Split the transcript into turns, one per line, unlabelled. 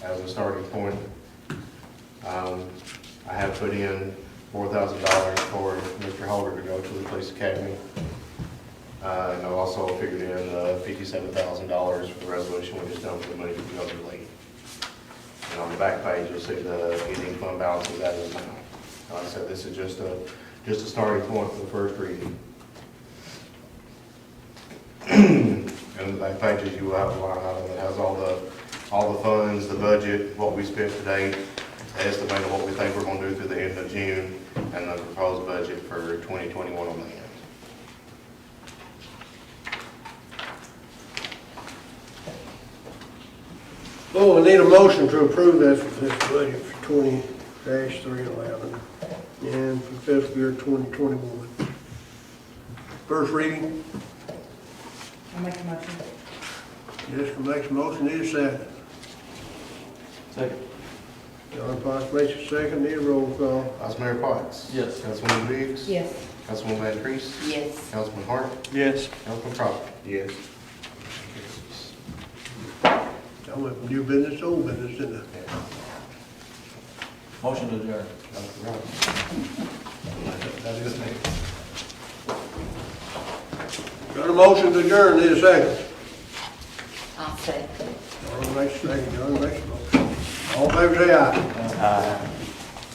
as a starting point. Um, I have put in four thousand dollars for Mr. Holder to go to the police academy. Uh, and I also figured in uh, fifty-seven thousand dollars for the resolution we just done for the money for the elderly. And on the back page, you'll see the ending fund balance of that amount. Like I said, this is just a, just a starting point for the first reading. And that page is you will have a line item that has all the, all the funds, the budget, what we spent today, estimate of what we think we're gonna do through the end of June, and the proposed budget for twenty twenty-one on the end.
Well, Oh, we need a motion to approve this, this budget for twenty three eleven and for fiscal year twenty twenty-one. First reading,
I'll make a motion.
Jessica makes a motion, need a second.
Second.
John Fox makes a second, need a roll call.
Vice Mayor Potts?
Yes.
Councilwoman Biggs?
Yes.
Councilwoman Van Treese?
Yes.
Councilman Hart?
Yes.
Councilman Crawford? Yes.
I went from new business to old business, didn't I?
Motion to adjourn.
That is me.
Got a motion to adjourn, need a second.
I'll second.
John makes a second, John makes a motion. All in favor say aye.
Aye.